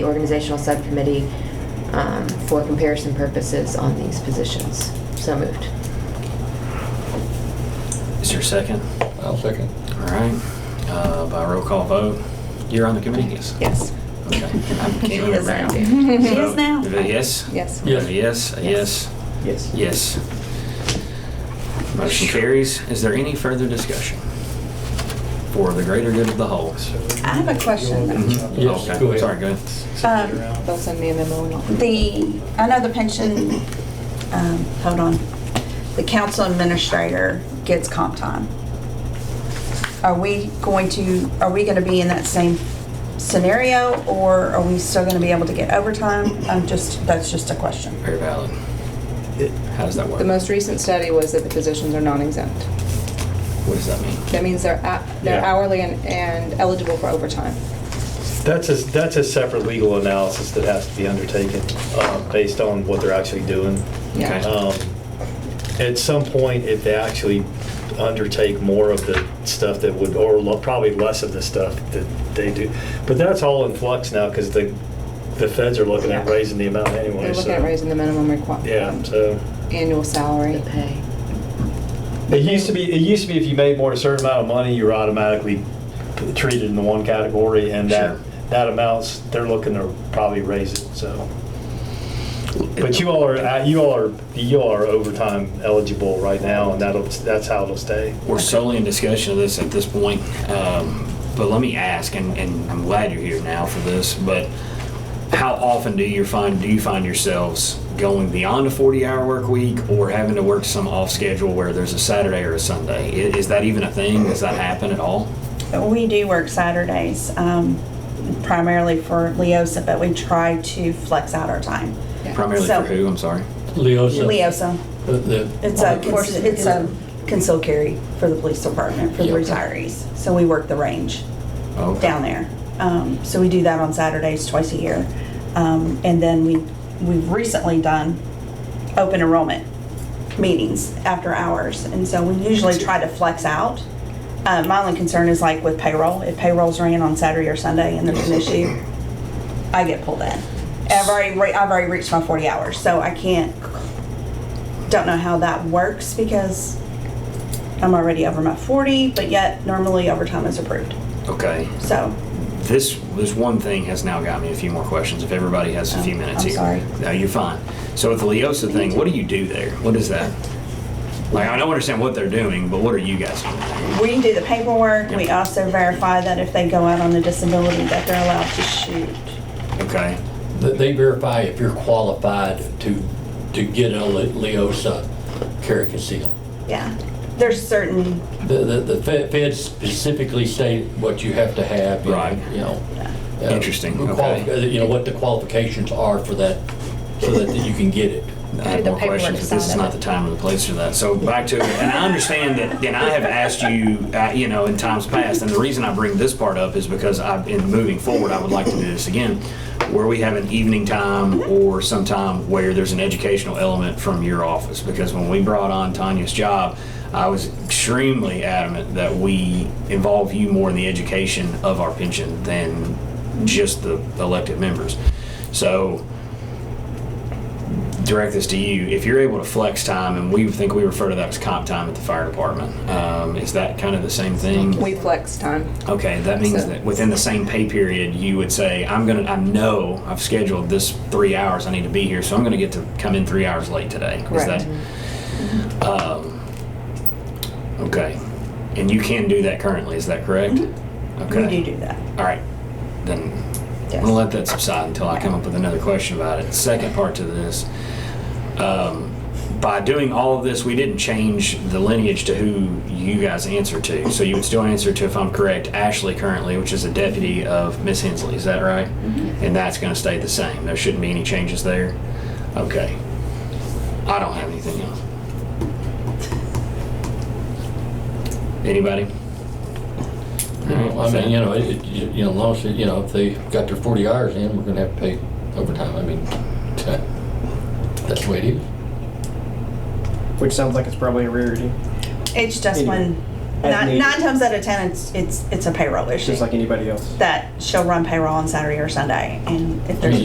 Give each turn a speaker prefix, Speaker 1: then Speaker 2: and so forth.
Speaker 1: the organizational subcommittee um, for comparison purposes on these positions. So moved.
Speaker 2: Is there a second?
Speaker 3: I'll second.
Speaker 2: All right, Uh, by roll call vote, you're on the committee, yes?
Speaker 1: Yes.
Speaker 2: Okay. I
Speaker 1: She
Speaker 2: can't
Speaker 1: is
Speaker 2: remember
Speaker 1: now.
Speaker 2: now.
Speaker 4: She
Speaker 2: So,
Speaker 4: is now.
Speaker 2: a Yes?
Speaker 4: Yes.
Speaker 2: A Yes, a yes,
Speaker 5: Yes.
Speaker 2: yes. Motion carries. Is there any further discussion? For the greater good of the whole.
Speaker 4: I have a question.
Speaker 2: Mhm.
Speaker 3: Yes,
Speaker 2: Okay.
Speaker 3: go ahead.
Speaker 2: Sorry, go ahead.
Speaker 4: Um,
Speaker 5: Around.
Speaker 6: They'll send me a memo and I'll.
Speaker 4: The, I know the pension, um, hold on, the council administrator gets comp time. Are we going to, are we going to be in that same scenario, or are we still going to be able to get overtime? I'm just, that's just a question.
Speaker 2: Very valid. How does that work?
Speaker 6: The most recent study was that the positions are non-exempt.
Speaker 2: What does that mean?
Speaker 6: That means they're, a- they're
Speaker 5: Yeah.
Speaker 6: hourly and, and eligible for overtime.
Speaker 5: That's a, that's a separate legal analysis that has to be undertaken uh, based on what they're actually doing.
Speaker 6: Yeah.
Speaker 2: Okay.
Speaker 5: Um, At some point, if they actually undertake more of the stuff that would, or lo- probably less of the stuff that they do, but that's all in flux now because the, the feds are looking at
Speaker 6: Yeah.
Speaker 5: raising the amount anyway.
Speaker 6: They're looking at
Speaker 5: so-
Speaker 6: raising the minimum requirement.
Speaker 5: Yeah, so.
Speaker 6: Annual
Speaker 1: The
Speaker 6: salary.
Speaker 1: pay.
Speaker 5: It used to be. It used to be if you made more than a certain amount of money, you were automatically p- treated in one category, and that
Speaker 2: Sure.
Speaker 5: that amounts they're looking to probably raise it. So, but you all are uh, you all are you all are overtime eligible right now, and that'll that's how it'll stay.
Speaker 2: We're solely in discussion of this at this point, um, but let me ask, and, and I'm glad you're here now for this, but how often do you find, do you find yourselves going beyond a 40-hour work week or having to work some off schedule where there's a Saturday or a Sunday? I- Is that even a thing? Does that happen at all?
Speaker 4: We do work Saturdays, um, primarily for Leosa, but we try to flex out our time.
Speaker 2: Primarily
Speaker 4: So-
Speaker 2: for who, I'm sorry?
Speaker 3: Leo's. the-
Speaker 4: Leosa,
Speaker 3: the- the- uh,
Speaker 4: It's a, it's a conceal carry for the police department, for the
Speaker 2: Yeah.
Speaker 4: retirees. So we work the range
Speaker 2: Okay.
Speaker 4: down there. Um, so we do that on Saturdays twice a year. Um, and then we, we've recently done open enrollment meetings after hours. And so we usually try to flex out. Uh, my only concern is like with payroll, if payroll's ran on Saturday or Sunday and there's an issue, I get pulled in. I've already, re- I've already reached my forty hours, so I can't, don't know how that works because I'm already over my forty, but yet normally overtime is approved,
Speaker 2: Okay.
Speaker 4: so.
Speaker 2: This, this one thing has now got me a few more questions, if everybody has a few minutes
Speaker 4: Oh, I'm
Speaker 2: here.
Speaker 4: sorry.
Speaker 2: No, you're fine. So with the Leosa thing, what do you do there? What is that? Like, I don't understand what they're doing, but what are you guys doing?
Speaker 4: We do the paperwork, we also verify that if they go out on a disability that they're allowed to shoot.
Speaker 2: Okay,
Speaker 3: the- They verify if you're qualified to, to get a Le- Leosa carry conceal.
Speaker 4: Yeah, there's certain,
Speaker 3: The, the, the fe- feds specifically state what you have to have. you know,
Speaker 2: Right.
Speaker 3: You know. uh,
Speaker 2: Interesting,
Speaker 3: quali-
Speaker 2: okay.
Speaker 3: uh, You know, what the qualifications are for that, so that you can get it.
Speaker 2: I have
Speaker 6: The
Speaker 2: uh, more questions, but
Speaker 6: paperwork
Speaker 2: this is
Speaker 6: side of
Speaker 2: not
Speaker 6: it.
Speaker 2: the time or the place for that. So back to, and I understand that, and I have asked you, uh, you know, in times past, and the reason I bring this part up is because I've been moving forward, I would like to do this again, where we have an evening time or some time where there's an educational element from your office. Because when we brought on Tanya's job, I was extremely adamant that we involve you more in the education of our pension than just the elected members. So direct this to you. If you're able to flex time, and we think we refer to that as comp time at the fire department, um, is that kind of the same thing?
Speaker 6: We flex time.
Speaker 2: Okay, that means
Speaker 6: So-
Speaker 2: that within the same pay period, you would say, I'm gonna, I know I've scheduled this three hours, I need to be here, so I'm gonna get to come in three hours late today. Is that-
Speaker 6: Correct.
Speaker 2: Um, okay, and you can do that currently, is that correct?
Speaker 4: we
Speaker 2: Okay.
Speaker 4: do do that.
Speaker 2: All right, then I'm
Speaker 4: Yes.
Speaker 2: gonna let that subside until I come up with another question about it. Second part to this, um, by doing all of this, we didn't change the lineage to who you guys answer to. So you would still answer to, if I'm correct, Ashley currently, which is a deputy of Miss Hensley. Is that right? And that's gonna stay the same. There shouldn't be any changes there. Okay. I don't have anything else. Anybody?
Speaker 3: I mean, you know, it, it- you you know, as long as, you know, if they got their 40 hours in, we're gonna have to pay overtime. I mean, that's the way it is.
Speaker 7: Which sounds like it's probably a rarity.
Speaker 4: It's just when
Speaker 7: As
Speaker 4: Nine,
Speaker 7: needed.
Speaker 4: nine times out of ten, it's it's it's a payroll issue
Speaker 7: just like anybody else.
Speaker 4: that she'll run payroll on Saturday or Sunday, and if there's